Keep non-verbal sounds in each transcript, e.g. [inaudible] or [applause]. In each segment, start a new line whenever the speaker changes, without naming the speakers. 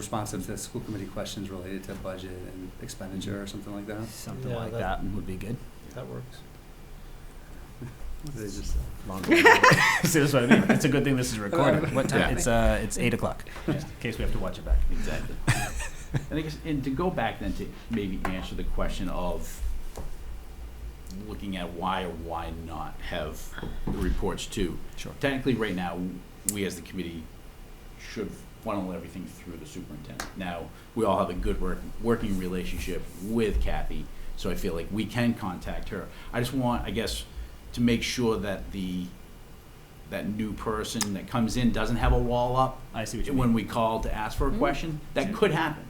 responsive to school committee questions related to budget and expenditure or something like that.
Something
Yeah,
like
that-
that would be good.
That works.
They just,
[laughs] Longer. See, that's what I mean. It's a good thing this is recorded. What time?
Yeah.
It's uh, it's eight o'clock. Just in case we have to watch it back.
Exactly. [laughs] And I guess, and to go back then to maybe answer the question of looking at why or why not have the reports too.
Sure.
Technically, right now, we as the committee should funnel everything through the superintendent. Now, we all have a good work, working relationship with Kathy, so I feel like we can contact her. I just want, I guess, to make sure that the, that new person that comes in doesn't have a wall up
I see what you mean.
when we call to ask for a
Mm.
question, that could happen,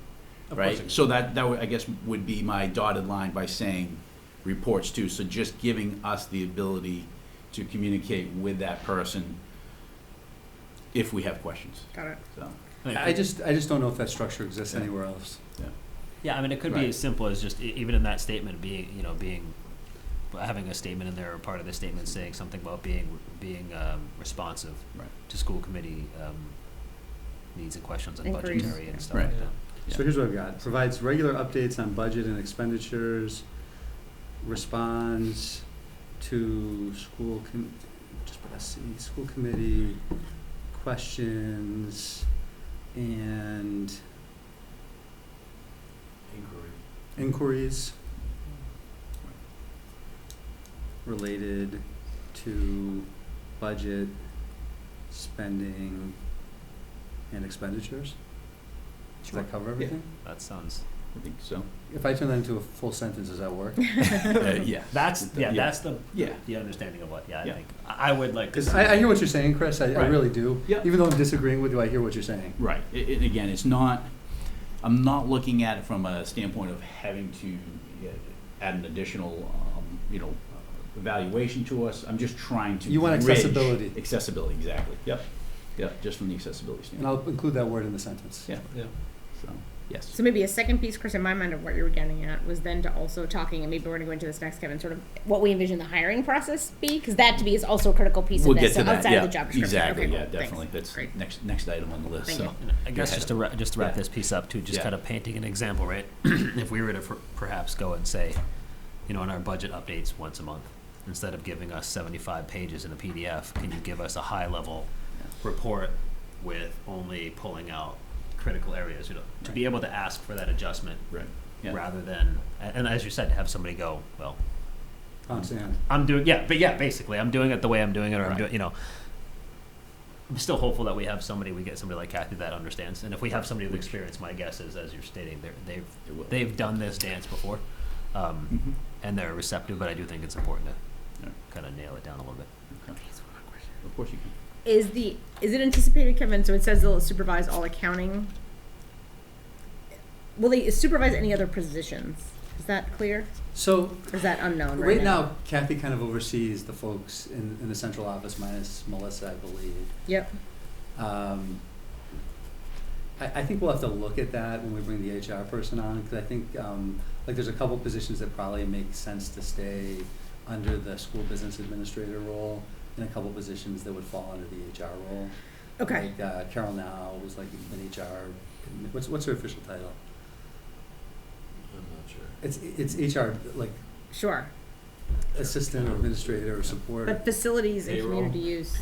right? So that, that would, I guess, would be my dotted line by saying reports too, so just giving us the ability to communicate with that person if we have questions,
Got it.
so.
mean,
I just, I just don't know if that structure exists
Yeah.
anywhere else.
Yeah, I mean, it could be
Right.
as simple as just e- even in that statement being, you know, being having a statement in there or part of the statement saying something about being being um, responsive
Right.
to school committee um, needs and questions and
Inquiries.
budgetary and stuff
Right.
like that.
So here's what I've got. Provides regular updates on budget and expenditures, responds to school com- just put SC, school committee questions and
Inquiry.
inquiries related to budget, spending, and expenditures? Does that cover everything?
That sounds.
I think
[laughs]
so,
If I turn that into a full sentence, does that
[laughs]
work?
Uh, yeah,
That's yeah,
Yeah.
That's the
yeah,
the understanding of what. Yeah, I
Yeah.
think I I would like to.
Because
see-
I, I hear what you're saying, Chris, I, I
Right.
really do.
Yeah.
Even though I'm disagreeing with you, I hear what you're saying.
right, I- I- again, it's not, I'm not looking at it from a standpoint of having to uh, add an additional, um, you know, uh, evaluation to us. I'm just trying to.
You want
bridge-
accessibility.
Accessibility, exactly. Yep. Yep, just from the accessibility
And
standpoint.
I'll include that word in the sentence.
Yeah.
Yeah.
So, yes.
So maybe a second piece, Chris, in my mind of what you were getting at was then to also talking, and maybe we're going to go into this next, Kevin, sort of what we envision the hiring process be, because that to me is also a critical piece
We'll
of
get
this.
to
so
that.
outside
yeah,
of the job description.
Exactly,
Okay,
yeah,
cool. Thanks.
definitely. That's
Great.
next, next item on the list,
Thank
so.
you.
And I guess just to wrap, just to wrap
Yeah.
this piece up too, just
Yeah.
kind of painting an example, right? [clears throat] if we were to per- perhaps go and say, you know, in our budget updates once a month, instead of giving us 75 pages in a PDF, can you give us a high level report with only pulling out critical areas, you know, to be able to ask for that adjustment
Right. Yeah.
rather than, and, and as you said, have somebody go, well,
On sand.
I'm doing yeah, but yeah, basically I'm doing it the way I'm doing it, or I'm
Right.
doing you know. I'm still hopeful that we have somebody, we get somebody like Kathy that understands, and if we have somebody with experience, my guess is, as you're stating, they're, they've
It will.
they've done this dance before, um,
Mhm.
and they're receptive. But I do think it's important to
Yeah.
kind of nail it down a little bit.
Okay. Of course you can.
Is the is it anticipated, Kevin? So it says they'll supervise all accounting. Will they supervise any other positions? Is that clear?
So
Or is that unknown right,
Right now, Kathy kind of oversees the folks in, in the central office minus Melissa, I believe.
Yep.
Um, I, I think we'll have to look at that when we bring the HR person on, because I think, um, like, there's a couple positions that probably make sense to stay under the school business administrator role, and a couple positions that would fall under the HR role.
Okay.
Like, uh, Carol Now was like an HR, what's, what's her official title?
I'm not sure.
It's, it's HR, like,
Sure.
assistant or administrator or support.
But facilities and
Payroll.
community use.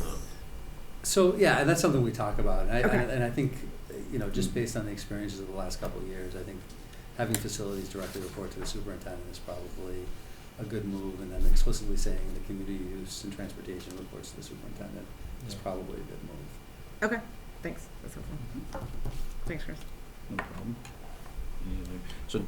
So, yeah, and that's something we talk about. And I,
Okay.
and I think, you know,
Mm.
just based on the experiences of the last couple of years, I think having facilities directly report to the superintendent is probably a good move. And then explicitly saying the community use and transportation reports to the superintendent is probably a good move.
Okay. Thanks. That's helpful. Thanks, Chris.
No problem. Any other- So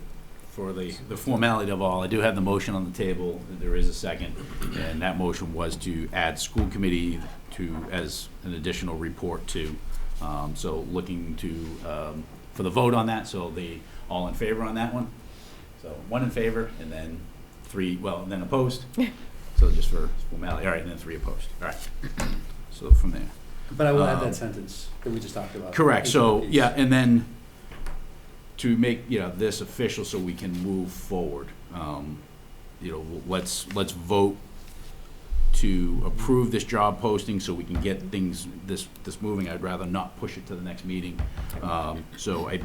for the, the formality of all, I do have the motion on the table, there is a second, and that motion was to add school committee to, as an additional report to. Um, So looking to, um, for the vote on that, so the, all in favor on that one? So one in favor, and then three, well, and then opposed? So just for formality, all right, and then three opposed, all right. So from there.
But I will add
Um,
that sentence that we just talked about.
Correct, so,
Include these.
yeah, and then to make, you know, this official so we can move forward, um, you know, let's, let's vote to approve this job posting so we can get things, this, this moving. I'd rather not push it to the next meeting. Um, So I,